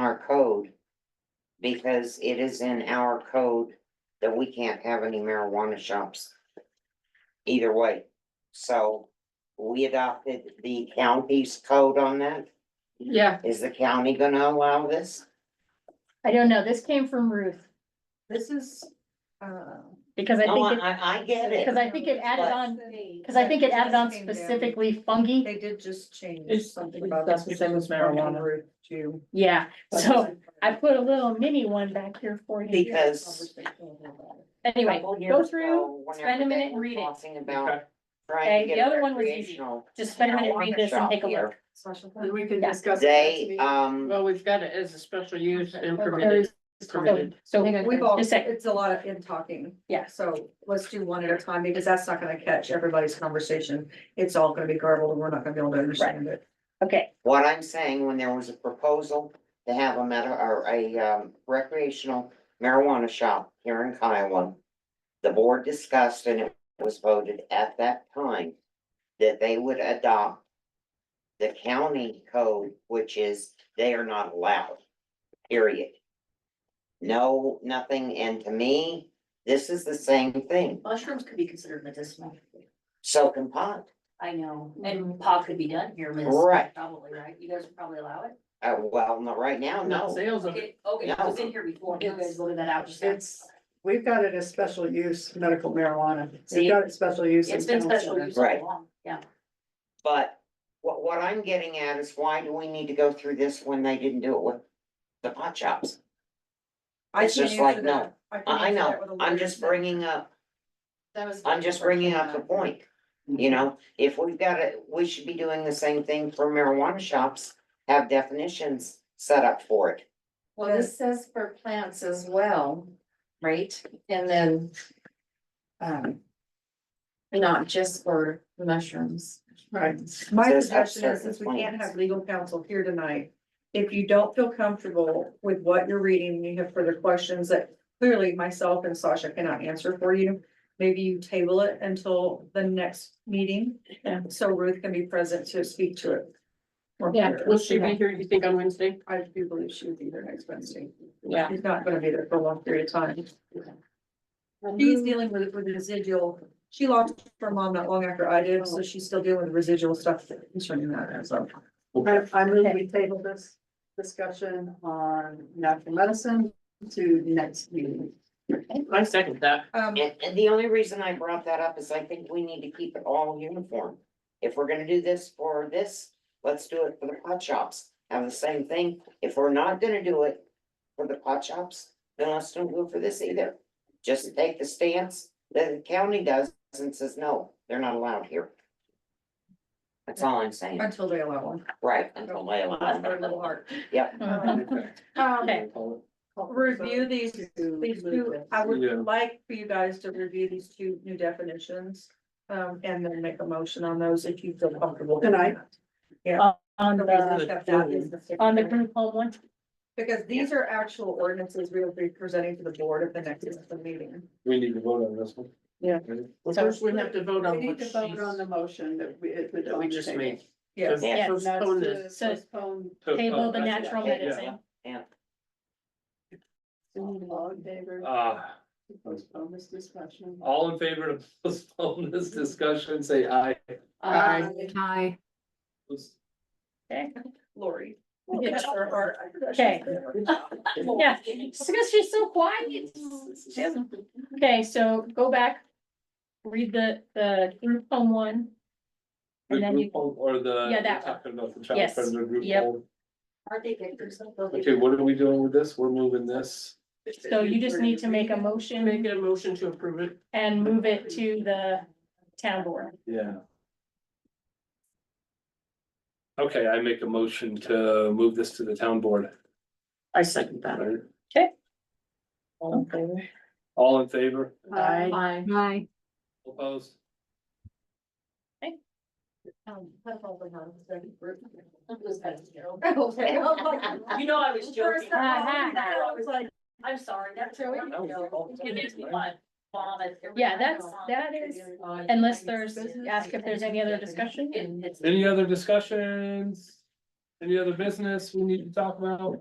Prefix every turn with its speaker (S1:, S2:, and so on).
S1: our code. Because it is in our code that we can't have any marijuana shops. Either way, so we adopted the county's code on that.
S2: Yeah,
S1: Is the county gonna allow this?
S3: I don't know, this came from Ruth,
S4: This is, uh.
S3: because I
S1: No,
S3: think, it-
S1: Oh, I, I get it.
S3: because I think it added
S1: But-
S3: on, because I think it added on specifically fungi,
S4: They did just change
S2: It's-
S4: something about.
S2: that's the same as marijuana.
S4: Too.
S3: yeah, so I put a little mini one back here for you.
S1: Because.
S3: Anyway,
S1: couple
S3: go
S1: years
S3: through,
S1: ago, whenever
S3: spend a
S1: they
S3: minute and
S1: were
S3: read it.
S1: Talking about
S2: Okay.
S3: Okay,
S1: trying to
S3: the
S1: get
S3: other
S1: a
S3: one was easy.
S1: recreational.
S3: just spend a minute, read this and take a look.
S2: we can
S3: Yeah.
S2: discuss. it next
S1: They,
S2: meeting.
S1: um,
S2: Well, we've got it as a special use and
S3: There
S2: permitted.
S3: is- So,
S2: Permitted.
S3: so,
S4: We've all,
S3: Just a sec.
S4: it's a lot of in talking.
S3: Yeah.
S4: So let's do one at a time because that's not gonna catch everybody's conversation. It's all gonna be garbled and we're not gonna be able to understand it.
S3: okay,
S1: what I'm saying, when there was a proposal to have a meta, or a um, recreational marijuana shop here in Kiowa. The board discussed and it was voted at that time that they would adopt the county code, which is they are not allowed, period. No, nothing, and to me, this is the same thing,
S5: Mushrooms could be considered medicinal.
S1: so can pot.
S5: I know, and pot could be done here, miss.
S1: Right.
S5: Probably, right? You guys would probably allow it?
S1: Uh, well, not right now,
S2: Not
S1: no.
S2: sales of it.
S5: Okay, okay, it was in here before. You guys voted that out just now.
S6: It's, we've got it as special use medical marijuana.
S5: See?
S6: We've got it special use.
S5: It's
S6: in
S5: been special
S6: council.
S5: use all
S1: Right.
S5: along, yeah.
S1: But what, what I'm getting at is why do we need to go through this when they didn't do it with the pot shops?
S4: I
S1: It's
S4: can't
S1: just like,
S4: answer that. can
S1: I, I
S4: answer
S1: know,
S4: that with a
S1: I'm
S4: lawyer.
S1: just bringing up, I'm just bringing up the point. You know, if we've got it, we should be doing the same thing for marijuana shops, have definitions set up for it.
S7: Well, this says for plants as well, right? And then. Um. Not just for mushrooms.
S6: Right.
S4: My
S1: Says
S4: suggestion
S1: upstairs
S4: is, since we
S1: complaints.
S4: can't have legal counsel here tonight, if you don't feel comfortable with what you're reading, and you have further questions that clearly myself and Sasha cannot answer for you, maybe you table it until the next meeting,
S2: Yeah.
S4: so Ruth can be present to speak to it. Or
S3: Yeah.
S4: here.
S2: Will she be here, you think, on Wednesday?
S4: I do believe she would be there next Wednesday.
S2: Yeah.
S4: She's not gonna be there for a long period of time. She's dealing with, with the residual, she lost her mom not long after I did, so she's still dealing with residual stuff concerning that, so.
S6: I, I move we table this discussion on natural medicine to next meeting.
S1: Mm-hmm.
S2: I second that.
S4: Um,
S1: And, and the only reason I brought that up is I think we need to keep it all uniform. If we're gonna do this for this, let's do it for the pot shops, have the same thing. If we're not gonna do it for the pot shops, then let's don't do it for this either. Just take the stance that the county does and says, no, they're not allowed here. That's all I'm saying,
S4: until they allow one.
S1: right, until they allow.
S4: That's
S1: them.
S4: our little heart.
S1: Yep,
S3: Mm-hmm. okay,
S4: Um, Review these, these two, I would like for you guys to review these two new definitions. Um, and then make a motion on those if you feel comfortable.
S6: Tonight?
S3: on the,
S4: The reason we kept that is the-
S3: on the group home one,
S4: Because these are actual ordinances we'll be presenting to the board at the next meeting.
S8: We need to vote on this one.
S2: Well, first we have to vote
S6: We
S2: on what
S6: need to
S2: she's,
S6: vote on the
S2: that
S6: motion that we. it was
S2: we
S6: on the
S2: just
S6: table.
S2: made.
S4: Yes.
S1: Yeah.
S2: So
S6: And that's
S2: Postpone this.
S6: to postpone.
S8: Uh,
S3: table the
S8: Oh,
S3: natural
S1: yeah,
S3: medicine.
S6: All in favor,
S8: Uh,
S6: to postpone this discussion.
S8: all in favor to postpone this discussion, say aye.
S2: Aye.
S7: Hi.
S4: Lori.
S3: Yeah.
S4: Or- or-
S3: Okay. Yeah, it's because she's so quiet. She hasn't- Okay, so go back, read the, the group home one.
S8: The
S3: And then you,
S8: group home or the.
S3: Yeah, that
S8: we're
S3: one.
S8: Talking about the
S3: Yes.
S8: chapter, the group
S3: Yep.
S8: home.
S5: Aren't they good for something?
S8: Okay, what are we doing with this? We're moving this.
S3: so you just need to make a motion
S2: Make a motion to approve it.
S3: and move it to the town board.
S8: Yeah. Okay, I make a motion to move this to the town board.
S2: I second that.
S8: Right?
S2: Okay.
S8: All in favor?
S2: Aye.
S7: Hi.
S8: Opposed?
S5: You know, I was joking.
S4: Uh-huh.
S3: I
S5: I'm sorry, that's. It makes me want vomit. every
S3: Yeah,
S5: time I
S3: that's-
S5: go on.
S3: that is- Unless there's, ask if there's any other discussion.
S5: And it's-
S8: Any other discussions? Any other business we need to talk about?